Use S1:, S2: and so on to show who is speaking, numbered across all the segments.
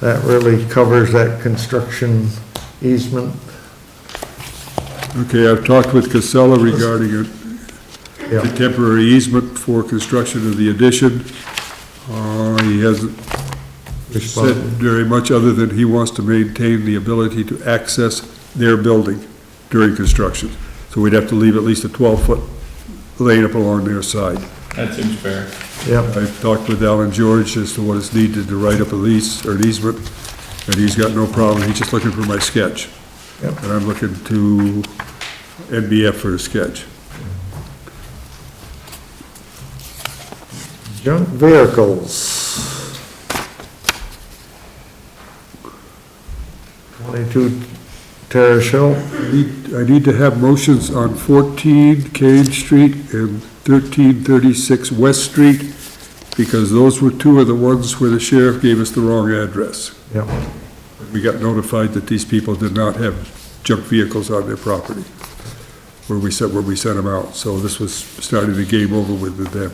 S1: That really covers that construction easement.
S2: Okay, I've talked with Casella regarding a a
S1: Yeah,
S2: temporary easement for construction of the addition. Uh, He hasn't said
S1: responded.
S2: very much other than he wants to maintain the ability to access their building during construction. So we'd have to leave at least a 12-foot lane up along their side.
S3: That seems fair.
S1: yeah,
S2: I've talked with Alan George as to what is needed to write up a lease or an easement, and he's got no problem, he's just looking for my sketch.
S1: Yep.
S2: And I'm looking to NBF for a sketch.
S1: junk vehicles. Twenty-two Terrace Hill,
S2: Need- I need to have motions on 14 Kane Street and 1336 West Street, because those were two of the ones where the sheriff gave us the wrong address.
S1: yeah,
S2: We got notified that these people did not have junk vehicles on their property, where we sent, where we sent them out. So this was starting the game over with them.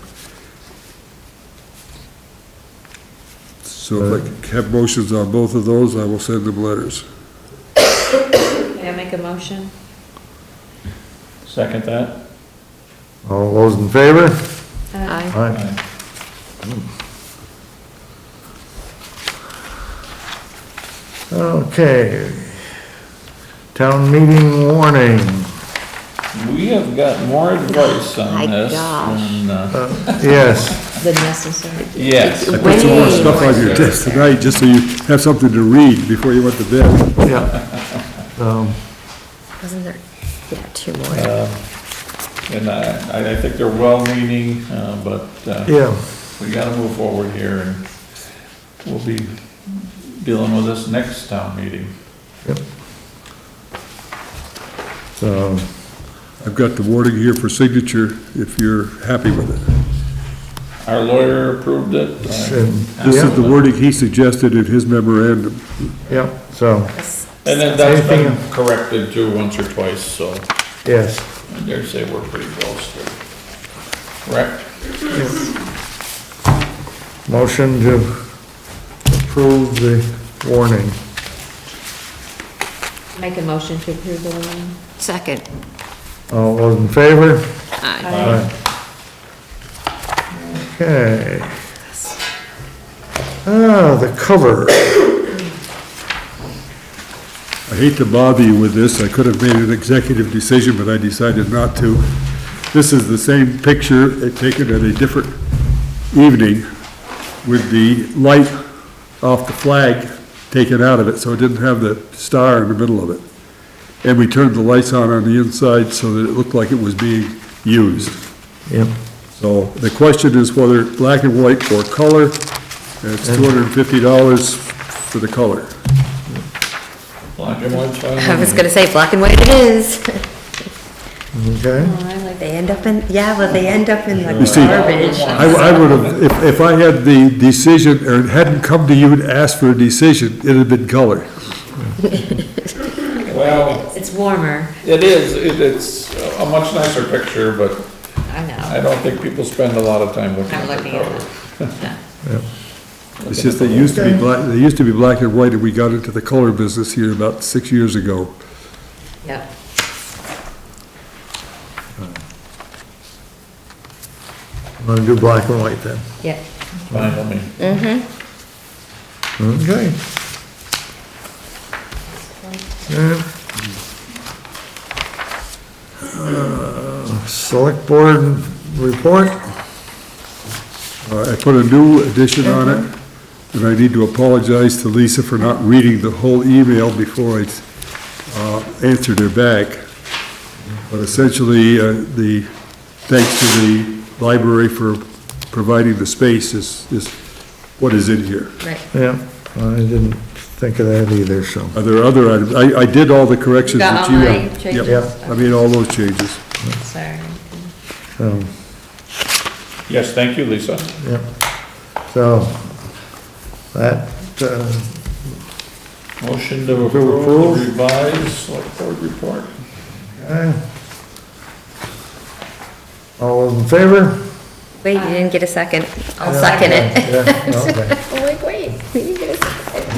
S2: So if I can have motions on both of those, I will send them letters.
S4: May I make a motion?
S3: Second that?
S1: all those in favor?
S4: Aye.
S1: Aye. Okay. Town meeting warning.
S3: We have got more advice
S4: My
S3: on this
S4: gosh.
S3: than, uh,
S1: Uh, Yes,
S4: The necessary.
S3: yes.
S2: I put some more stuff on your desk tonight, just so you have something to read before you went to bed.
S1: yeah. Um,
S4: Wasn't there, yeah, two more.
S3: Uh, And I, I- I think they're well-meaning, uh, but uh,
S1: Yeah,
S3: we gotta move forward here and we'll be dealing with this next town meeting.
S1: so,
S2: I've got the warning here for signature, if you're happy with it.
S3: Our lawyer approved it. uh,
S1: and-
S2: This is the
S1: yeah,
S2: wording he suggested in his memorandum.
S1: yeah, so,
S3: And then that's been corrected too once or twice, so
S1: yes.
S3: I dare say we're pretty close to correct.
S1: Motion to approve the warning.
S4: Make a motion to approve the warning. Second.
S1: All those in favor?
S4: Aye.
S1: Okay. Ah, the cover.
S2: I hate to bother you with this, I could have made an executive decision, but I decided not to. This is the same picture uh, taken at a different evening with the light off the flag taken out of it, so it didn't have the star in the middle of it. And we turned the lights on on the inside so that it looked like it was being used.
S1: Yep.
S2: So the question is whether black and white or color, and it's $250 for the color.
S3: Black and white's fine.
S5: I was gonna say, black and white it is.
S4: Oh,
S1: Okay.
S5: They end up in, yeah, well, they end up in
S2: You
S5: the
S2: see-
S5: garbage.
S2: I, I would have, if, if I had the decision, or it hadn't come to you and asked for a decision, it'd have been color.
S3: Well,
S4: It's warmer,
S3: it is, it- it's a much nicer picture, but
S4: I
S3: I
S4: know.
S3: don't think people spend a lot of time looking
S4: I'm
S3: at the
S4: looking at
S3: cover.
S4: it.
S2: It's just they used to be black, they used to be black and white, and we got into the color business here about six years ago.
S4: Yep.
S1: I'm gonna do black and white then.
S4: Yep.
S3: Fine, I mean,
S1: Okay. Yeah. Uh, Select board report?
S2: Uh, I put a new edition on it, and I need to apologize to Lisa for not reading the whole email before I, uh, answered her back. But essentially, uh, the, thanks to the library for providing the space is, is what is in here.
S4: Right.
S1: Yeah, I didn't think of that either, so.
S2: Are there other items? I, I did all the corrections
S4: Got
S2: that
S4: all
S2: you
S4: my
S2: had.
S4: changes?
S2: Yep, I made all those changes.
S4: Sorry.
S1: um,
S3: Yes, thank you, Lisa.
S1: Yep. So, that, uh,
S3: Motion to approve the revised select board report.
S1: aye. all those in favor?
S5: Wait, you didn't get a second. I'll second it.
S1: Yeah, okay.